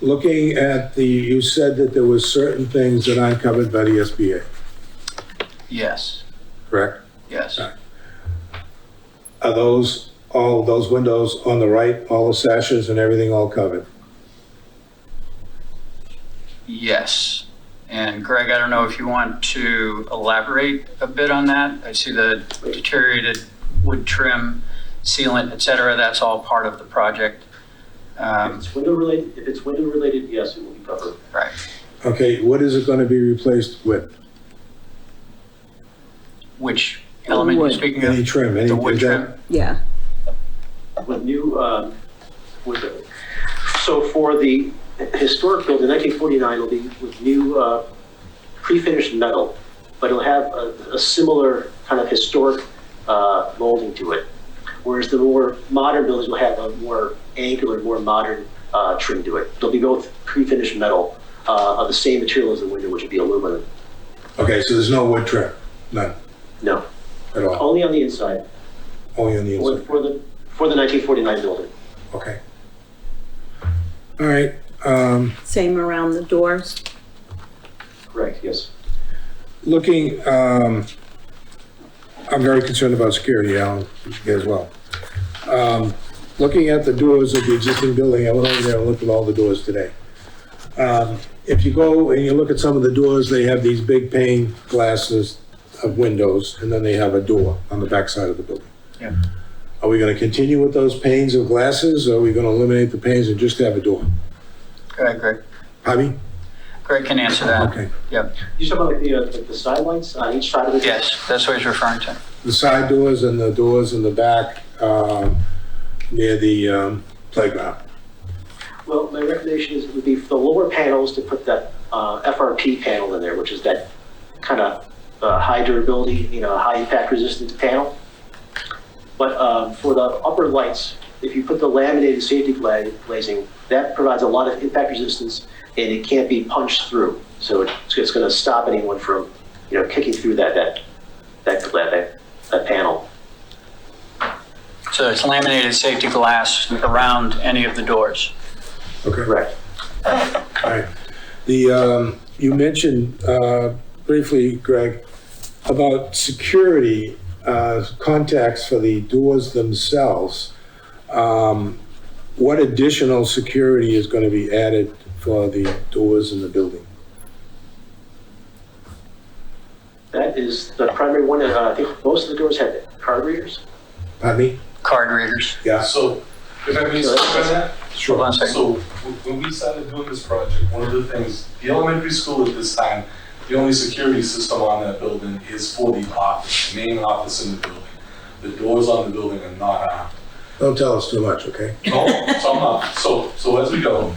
looking at the, you said that there was certain things that aren't covered by the SBA, Yes, correct? yes. Are those, all those windows on the right, all the sashes and everything all covered? Yes. And Greg, I don't know if you want to elaborate a bit on that. I see the deteriorated wood trim, sealant, et cetera. That's all part of the project. If Um, it's window related, if it's window related, yes, it will be covered. Right. Okay, what is it gonna be replaced with? Which element you're Wood. speaking Any of? trim, any? The wood is that- trim? Yeah, With new, um, with, so for the historic building, 1949 will be with new uh, pre-finished metal, but it'll have a a similar kind of historic uh, molding to it. Whereas the more modern buildings will have a more angular, more modern uh, trim to it. They'll be both pre-finished metal uh, of the same material as the window, which would be aluminum. Okay, so there's no wood trim, none No, at Oh. all, only on the inside, only on the for inside, for the, for the 1949 building. okay. All right, um, same around the doors. Correct, yes. looking, um, I'm very concerned about security, Alan, you as well. Um, looking at the doors of the existing building, I went over there and looked at all the doors today. Um, if you go and you look at some of the doors, they have these big pane glasses of windows, and then they have a door on the backside of the building. Yeah. Are we gonna continue with those panes of glasses, or are we gonna eliminate the panes and just have a door? Go ahead, Greg. Javi? Greg can answer that. Okay. Yep. You talking about like the, uh, like the side lights on each side of the? Yes, that's what he's referring to. the side doors and the doors in the back um, near the um, playground. Well, my recommendation is would be for the lower panels to put that uh, FRP panel in there, which is that kind of high durability, you know, high impact resistant panel. But um, for the upper lights, if you put the laminated safety gla- glazing, that provides a lot of impact resistance and it can't be punched through. So it's, it's going to stop anyone from, you know, kicking through that, that, that, that, that panel. So it's laminated safety glass around any of the doors. Okay. Correct. All right. The, um, you mentioned uh, briefly, Greg, about security uh, contacts for the doors themselves. Um, What additional security is going to be added for the doors in the building? That is the primary one, and uh, I think most of the doors have card readers. Pardon me? Card readers. Yeah, So, if I may speak on that, Hold sure. on a second. so wh- when we started doing this project, one of the things, the elementary school at this time, the only security system on that building is for the office, main office in the building. The doors on the building are not armed. Don't tell us too much, okay? No, so I'm not, so, so as we go,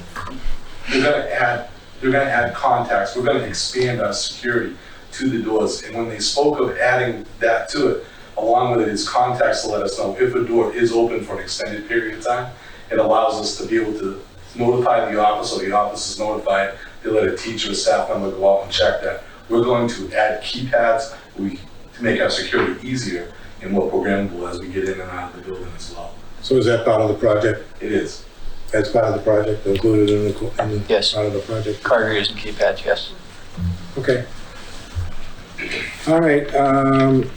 we're gonna add, we're gonna add contacts, we're gonna expand our security to the doors. And when they spoke of adding that to it, along with it is contacts to let us know if a door is open for an extended period of time. It allows us to be able to notify the office, or the office is notified, they let a teacher or staff member go out and check that. We're going to add keypads, we, to make our security easier and more programmable as we get in and out of the building as well. So is that part of the project? It is. That's part of the project, included in the, in the Yes. part of the project. Card readers and keypads, yes. Okay. All right, um,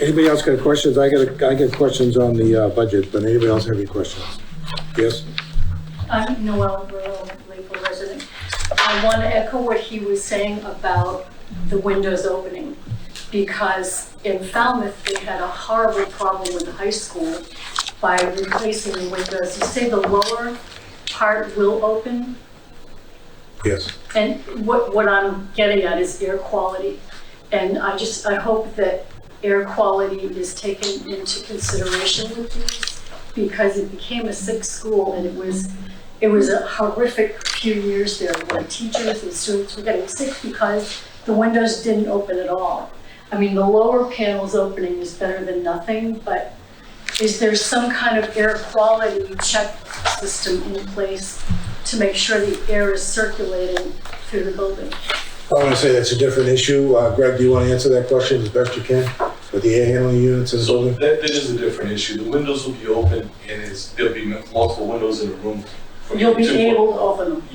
anybody else got questions? I got, I got questions on the, uh, budget, but anybody else have any questions? Yes? I'm Noel Burrow, Lakeville resident. I want to echo what he was saying about the windows opening, because in Falmouth, they had a horrible problem with the high school by replacing the windows. You say the lower part will open, Yes. and what, what I'm getting at is air quality. And I just, I hope that air quality is taken into consideration with these because it became a sick school and it was, it was a horrific few years there where teachers and students were getting sick because the windows didn't open at all. I mean, the lower panels opening is better than nothing, but is there some kind of air quality check system in place to make sure the air is circulating through the building? I want to say that's a different issue. Uh, Greg, do you want to answer that question as best you can with the air handling units and So so on? that, that is a different issue. The windows will be open and it's, there'll be multiple windows in the room. for You'll be two- able to open them.